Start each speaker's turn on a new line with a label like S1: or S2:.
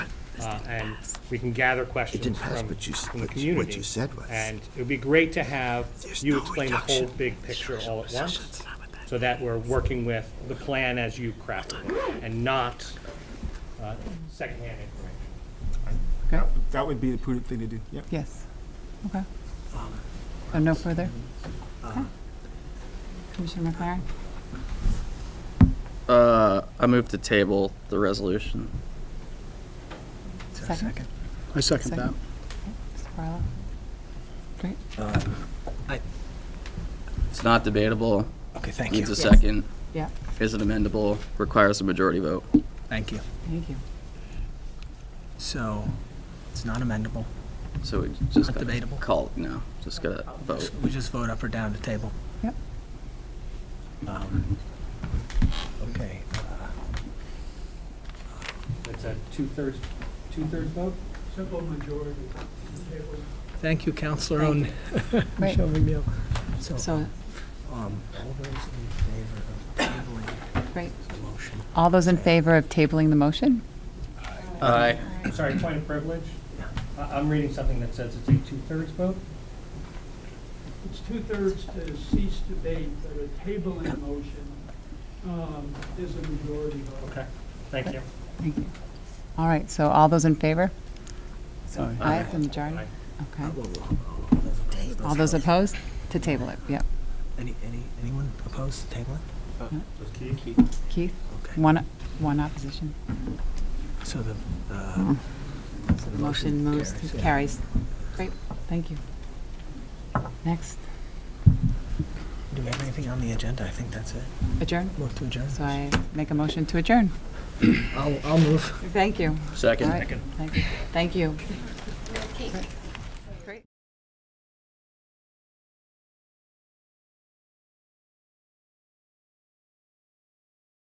S1: uh, and we can gather questions
S2: didn't pass,
S1: from
S2: but you s-
S1: from the
S2: what you- what you
S1: community.
S2: said was-
S1: And it would be great to have
S2: There's
S1: you
S2: no
S1: explain the whole
S2: reduction.
S1: big picture all at once, so that we're working with the plan as you crafted it, and not uh, secondhand information.
S3: Okay.
S4: That, that would be the prudent thing to do, yep.
S3: Yes. Okay. Um, So no further? Okay. Commissioner McLaren?
S5: Uh, I move to table the resolution.
S3: Second.
S6: I second that.
S3: Second. Mr. Barlow? Great.
S5: It's not debatable.
S6: Okay, thank
S5: Needs a
S3: Yes.
S5: second.
S3: Yeah,
S5: Is it amendable? Requires a majority vote.
S6: Thank you.
S3: thank you.
S6: So it's not amendable.
S5: So we just
S6: Not
S5: gotta
S6: debatable.
S5: Call, it no, just gotta vote.
S6: We just vote up or down to table.
S3: Yep.
S6: Um, Okay.
S1: It's a two-thirds, two-thirds vote?
S6: Thank you, Counselor on
S3: Great.
S6: Michelle Rubio. So,
S3: So,
S6: um, all those in favor of tabling
S3: great.
S6: the motion?
S3: All those in favor of tabling the motion?
S5: Aye.
S1: Sorry, point of privilege. I- I'm reading something that says it's a two-thirds vote.
S7: It's two-thirds to cease debate, but a tabling motion um, is a majority vote.
S1: Okay, thank you.
S3: Thank you. All right, so all those in favor? So I have the majority?
S1: Aye.
S3: Okay.
S6: All
S3: All those opposed? To table it, yep.
S6: Any, any, anyone opposed to tabling?
S3: Keith?
S6: Okay.
S3: One, one opposition.
S6: So the, uh,
S3: So the motion moves, to-
S6: yeah.
S3: carries. Great, thank you. Next,
S6: Do we have anything on the agenda? I think that's it.
S3: adjourn.
S6: Move to adjourn.
S3: So I make a motion to adjourn.
S6: I'll, I'll move.
S3: Thank you. All
S5: Second.
S3: right. Thank you. Thank you.